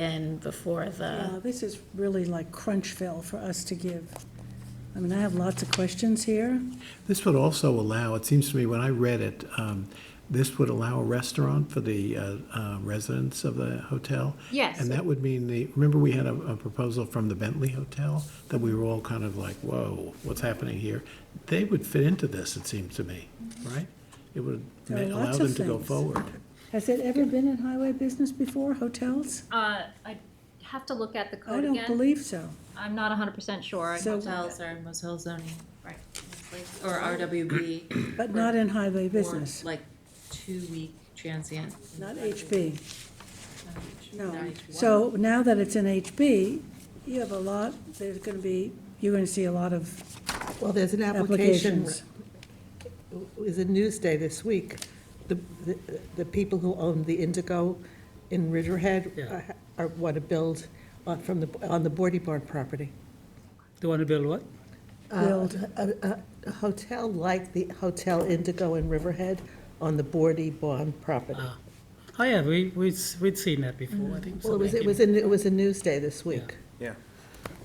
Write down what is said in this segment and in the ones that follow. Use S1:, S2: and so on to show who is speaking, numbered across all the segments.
S1: in before the,
S2: Uh, This is really like Crunchville for us to give. I mean, I have lots of questions here.
S3: This would also allow, it seems to me, when I read it, um, this would allow a restaurant for the uh, uh, residents of the hotel.
S4: Yes.
S3: And that would mean the, remember we had a, a proposal from the Bentley Hotel that we were all kind of like, whoa, what's happening here? They would fit into this, it seems to me, right? It would ma-
S2: There are
S3: allow
S2: lots
S3: them
S2: of
S3: to go
S2: things.
S3: forward.
S2: Has it ever been in highway business before, hotels?
S4: Uh, I have to look at the
S2: I
S4: code
S2: don't
S4: again.
S2: believe so.
S4: I'm not hundred percent sure. I'd
S2: So-
S4: have to-
S5: Hotels are motel zoning,
S4: Right.
S5: like- or RWB.
S2: But not in highway
S5: or
S2: business,
S5: Like two-week transient.
S2: not HB,
S5: Not
S2: no.
S5: HB.
S2: So now that it's in HB, you have a lot, there's going to be, you're going to see a lot of
S6: Well, there's an application,
S2: applications.
S6: it was in Newsday this week, the, the- the people who own the Indigo in Riverhead uh,
S7: Yeah.
S6: are, want to build on, from the, on the Boardy Barn property.
S7: They want to build what?
S6: Uh, A, a- a hotel like the Hotel Indigo in Riverhead on the Boardy Barn property.
S7: Oh, yeah, we, we'd, s- we'd seen that before, I think.
S6: Well, it was, it
S7: something
S6: was
S7: came-
S6: in, it was in Newsday this week.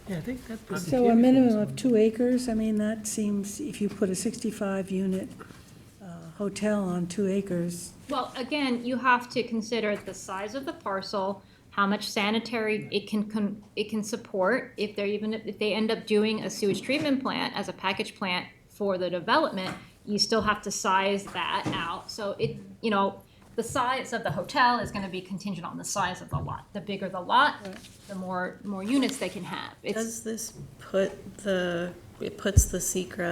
S7: Yeah, I think that was.
S2: So a minimum of two acres, I mean, that seems, if you put a 65-unit hotel on two acres,
S4: Well, again, you have to consider the size of the parcel, how much sanitary it can, con- it can support, if they're even, if they end up doing a sewage treatment plant as a package plant for the development, you still have to size that out, so it, you know, the size of the hotel is gonna be contingent on the size of the lot. The bigger the lot, the more, more units they can have. It's,
S5: Does this put the, it puts the secret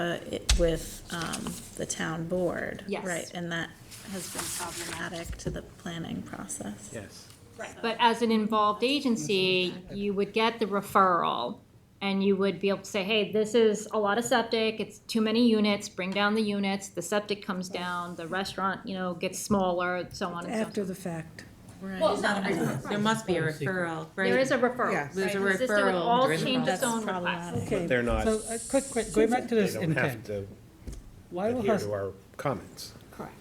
S5: i with um, the town board?
S4: Yes.
S5: Right, and that has been problematic to the planning process.
S3: Yes.
S4: But as an involved agency, you would get the referral and you would be able to say, hey, this is a lot of septic, it's too many units, bring down the units, the septic comes down, the restaurant, you know, gets smaller, so on and so forth.
S2: after the fact.
S4: Well,
S5: Right.
S4: no, I-
S5: There must be a referral, right?
S4: There is a referral.
S6: Yeah.
S5: There's a
S4: right? Consistent with
S5: referral.
S4: all
S5: There's a
S4: change of
S5: process.
S4: zone requests.
S2: Okay.
S8: They're not,
S7: So, a quick, quick, going back to
S8: they
S7: this
S8: don't have
S7: intent,
S8: to
S7: why will,
S8: adhere
S7: hos-
S8: to our comments.
S4: Correct.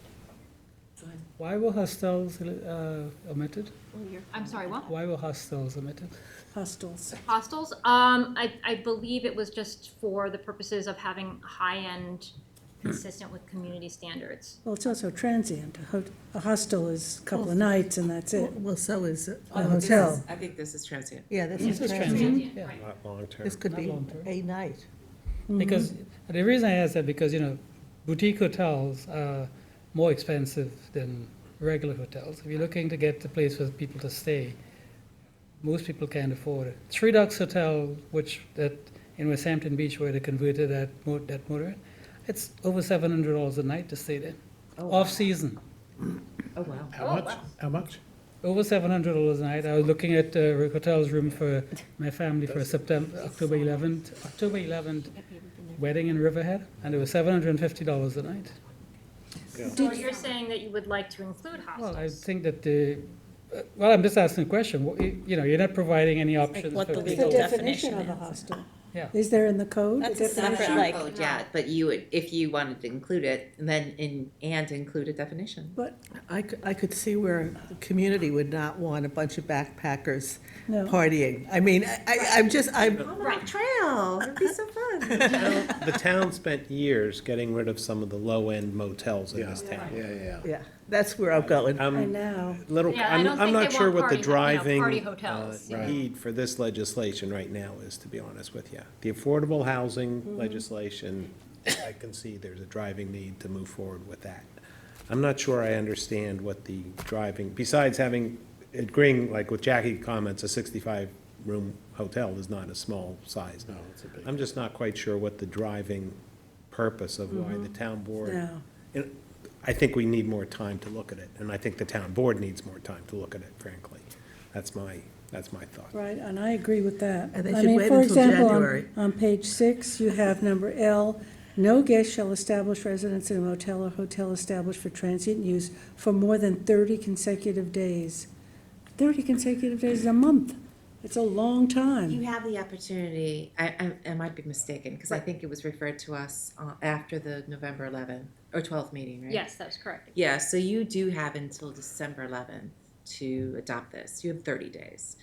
S7: why were hostels uh, omitted?
S4: I'm sorry, what?
S7: Why were hostels omitted?
S2: Hostels.
S4: Hostels, um, I, I believe it was just for the purposes of having high-end, consistent with community standards.
S2: Well, it's also transient. A ho- A hostel is a couple of nights and that's it.
S6: Well, so is. uh,
S7: Oh,
S2: A hotel.
S5: I think this is transient.
S6: Yeah, this is
S7: This is
S6: transient.
S7: transient, yeah.
S8: Not long-term.
S6: This could
S7: Not
S6: be
S7: long-term.
S6: a night.
S7: Because, the reason I ask that, because, you know, boutique hotels are more expensive than regular hotels. If you're looking to get a place for people to stay, most people can't afford it. Three Ducks Hotel, which, that, in West Hampton Beach, where they converted that, mo- that motor, it's over seven hundred dollars a night to stay there, off-season.
S6: Oh, wow.
S3: How much? How much?
S7: Over seven hundred dollars a night. I was looking at a hotel's room for my family for September, October eleventh, October eleventh wedding in Riverhead, and it was seven hundred and fifty dollars a night.
S4: So you're saying that you would like to include
S7: Well,
S4: hostels?
S7: I think that the, uh, well, I'm just asking a question. What- You you know, you're not providing any options
S5: what
S7: for
S5: the
S2: The
S5: legal-
S7: people.
S2: definition
S5: definition
S2: of a hostel.
S7: Yeah.
S2: Is there in the code?
S9: That's
S2: The
S9: a separate
S2: definition?
S9: like, code, yeah, but you would, if you wanted to include it, then in, and include a definition.
S2: But,
S6: I could, I could see where the community would not want a bunch of backpackers
S2: No.
S6: partying. I mean, I, I- I'm just, I'm,
S4: Right.
S9: Trail, it'd be so fun.
S8: The town spent years getting rid of some of the low-end motels in this town.
S3: Yeah, yeah.
S6: yeah, that's where I'm going.
S2: I
S8: I'm
S2: know.
S8: little,
S4: Yeah, I
S8: I'm,
S4: don't
S8: I'm
S4: think
S8: not
S4: they
S8: sure
S4: want
S8: what
S4: party-
S8: the
S4: you know,
S8: driving
S4: party
S8: uh,
S4: hotels, yeah.
S8: need for this legislation right now is, to be honest with you. The affordable
S4: Mm-hmm.
S8: housing legislation, I can see there's a driving need to move forward with that. I'm not sure I understand what the driving, besides having, agreeing, like with Jackie comments, a sixty-five room hotel is not a small size. No, it's a big. I'm just not quite sure what the driving purpose of why
S4: Mm-hmm.
S8: the town board.
S2: No.
S8: And I think we need more time to look at it, and I think the town board needs more time to look at it, frankly. That's my, that's my thought.
S2: Right, and I agree with that.
S6: And Uh, they
S2: I
S6: should
S2: mean,
S6: wait
S2: for
S6: until
S2: example, on-
S6: January.
S2: On page six, you have number L, no guest shall establish residence in a motel or hotel established for transient use for more than thirty consecutive days. Thirty consecutive days is a month. It's a long
S9: You
S2: time.
S9: have the opportunity, I, I, I might be mistaken, because I think it was referred to us uh, after the November eleventh, or twelfth meeting, right?
S4: Yes, that's correct.
S9: Yeah, so you do have until December eleventh to adopt this. You have thirty days.